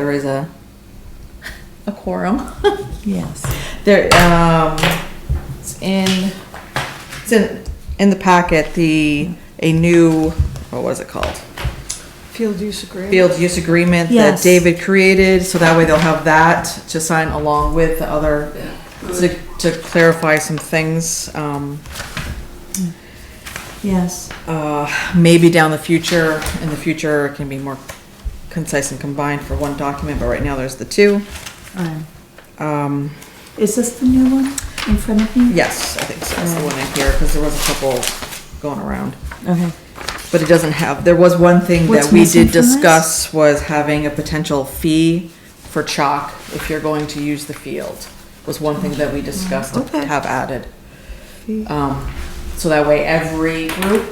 there is a, a quorum. Yes. There, um, it's in, it's in, in the packet, the, a new, what was it called? Field use agreement. Field use agreement that Yes. David created, so that way they'll have that to sign along with the other, to, to clarify some things, um, Yes. uh, maybe down the future, in the future, it can be more concise and combined for one document, but right now there's the two. Um, Um, Is this the new one in front of me? Yes, I think so, that's Mm. the one in here, because there was a couple going around. Okay. But it doesn't have, there was one thing that What's we missing did from this? discuss was having a potential fee for chalk if you're going to use the field, was one thing that we discussed to Okay. have added. Um, so that way every group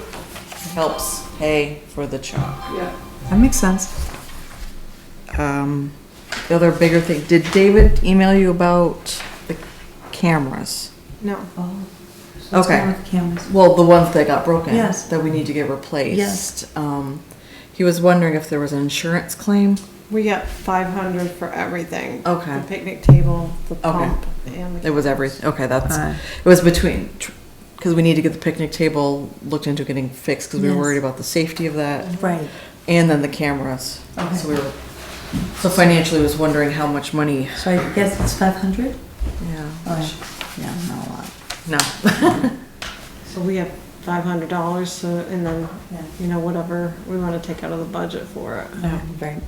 helps pay for the chalk. That makes sense. Um, the other bigger thing, did David email you about the cameras? No. Oh. so what's Okay. wrong with cameras? Well, the ones that got broken. Yes. That we need to get replaced. Yes. Um, he was wondering if there was an insurance claim. We got five hundred for everything. Okay. The picnic table, the pump, and It the was everything. Okay, that's, Uh. it was between, because we need to get the picnic table looked into getting fixed because we were Yes. worried about the safety of that. Right. And then the cameras. Okay. So we were, so financially was wondering how much money. So I guess it's five hundred? Yeah. Oh, yeah, not a lot. No. so we have five hundred dollars, so, and then, Yeah. you know, whatever we wanna take out of the budget for it. Oh, right.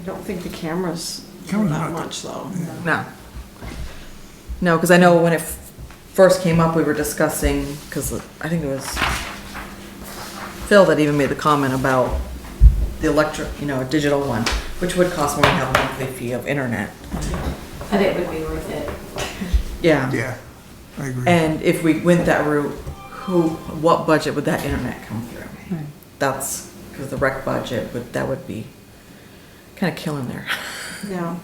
I don't think the cameras were Cameras that not- much though. No. No, because I know when it f- first came up, we were discussing, because I think it was Phil that even made the comment about the electric, you know, a digital one, which would cost more than a monthly fee of internet. But it would be worth it. Yeah. Yeah, I agree. And if we went that route, who, what budget would that internet come through? Right. That's, because the rec budget would, that would be kind of killing there. Yeah.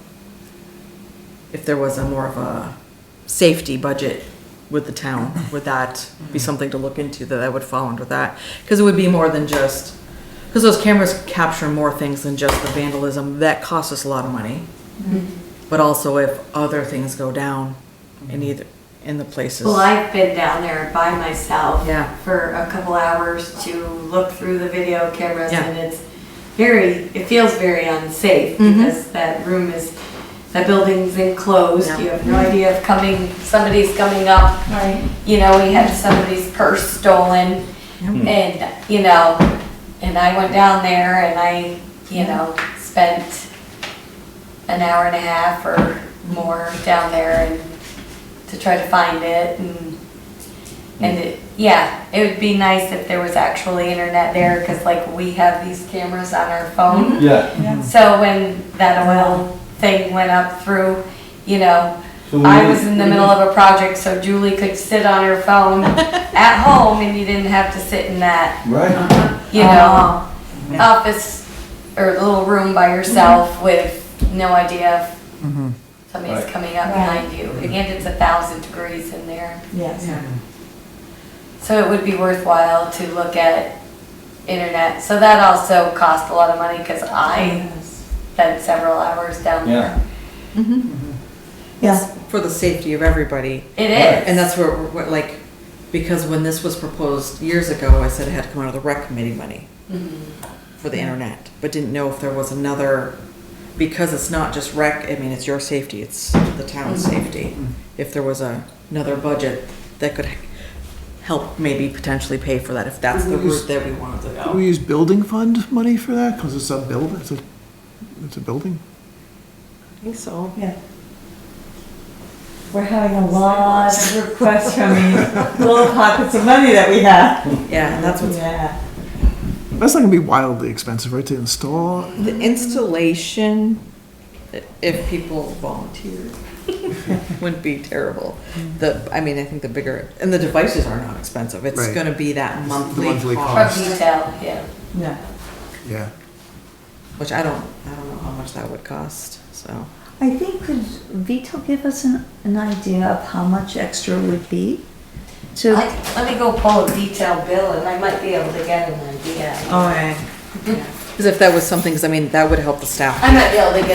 if there was a more of a safety budget with the town, would that be something to look into that I would fall under that? Because it would be more than just, because those cameras capture more things than just the vandalism, that costs us a lot of money. But also if other things go down in either, in the places. Well, I've been down there by myself Yeah. for a couple hours to look through the video cameras Yeah. and it's very, it feels very unsafe Mhm. because that room is, that building's enclosed. Yeah. You have no idea if coming, somebody's coming up. Right. You know, we had somebody's purse stolen and, you know, and I went down there and I, you know, spent an hour and a half or more down there and to try to find it and, and it, yeah, it would be nice if there was actually internet there, cause like we have these cameras on our phone. Yeah, So when that oil thing went up through, you know, So I we- was in the middle of a project, so Julie could sit on her phone at home and you didn't have to sit in that right. you know, office or little room by yourself with no idea if somebody's Right. coming up Right. behind you. And it's a thousand degrees in there. Yes. So it would be worthwhile to look at internet. So that also cost a lot of money because I Yes. spent several hours down Yeah. there. Yes. For the safety of everybody. It is. And that's where, what, like, because when this was proposed years ago, I said it had to come out of the rec committee money for the internet, but didn't know if there was another, because it's not just rec, I mean, it's your safety, it's the town's safety. If there was a, another budget that could help maybe potentially pay for that, if that's the route that we wanted to Do we go. use building fund money for that? Because it's a build, it's a, it's a building? I think so. Yeah. We're having a lot of requests from these little pockets of money that we have. Yeah, and that's what's, Yeah. That's not gonna be wildly expensive, right, to install? the installation, i- if people volunteered, wouldn't be terrible. The, I mean, I think the bigger, and the devices are not expensive, it's Right. gonna be that monthly monthly Or cost. cost. detail, yeah. Yeah. Yeah. Which I don't, I don't know how much that would cost, so. I think, could Vito give us an, an idea of how much extra would be? To, I- Let me go pull a detailed bill and I might be able to get an idea. all right. Because if that was something, because I mean, that would help the staff. I might be able to get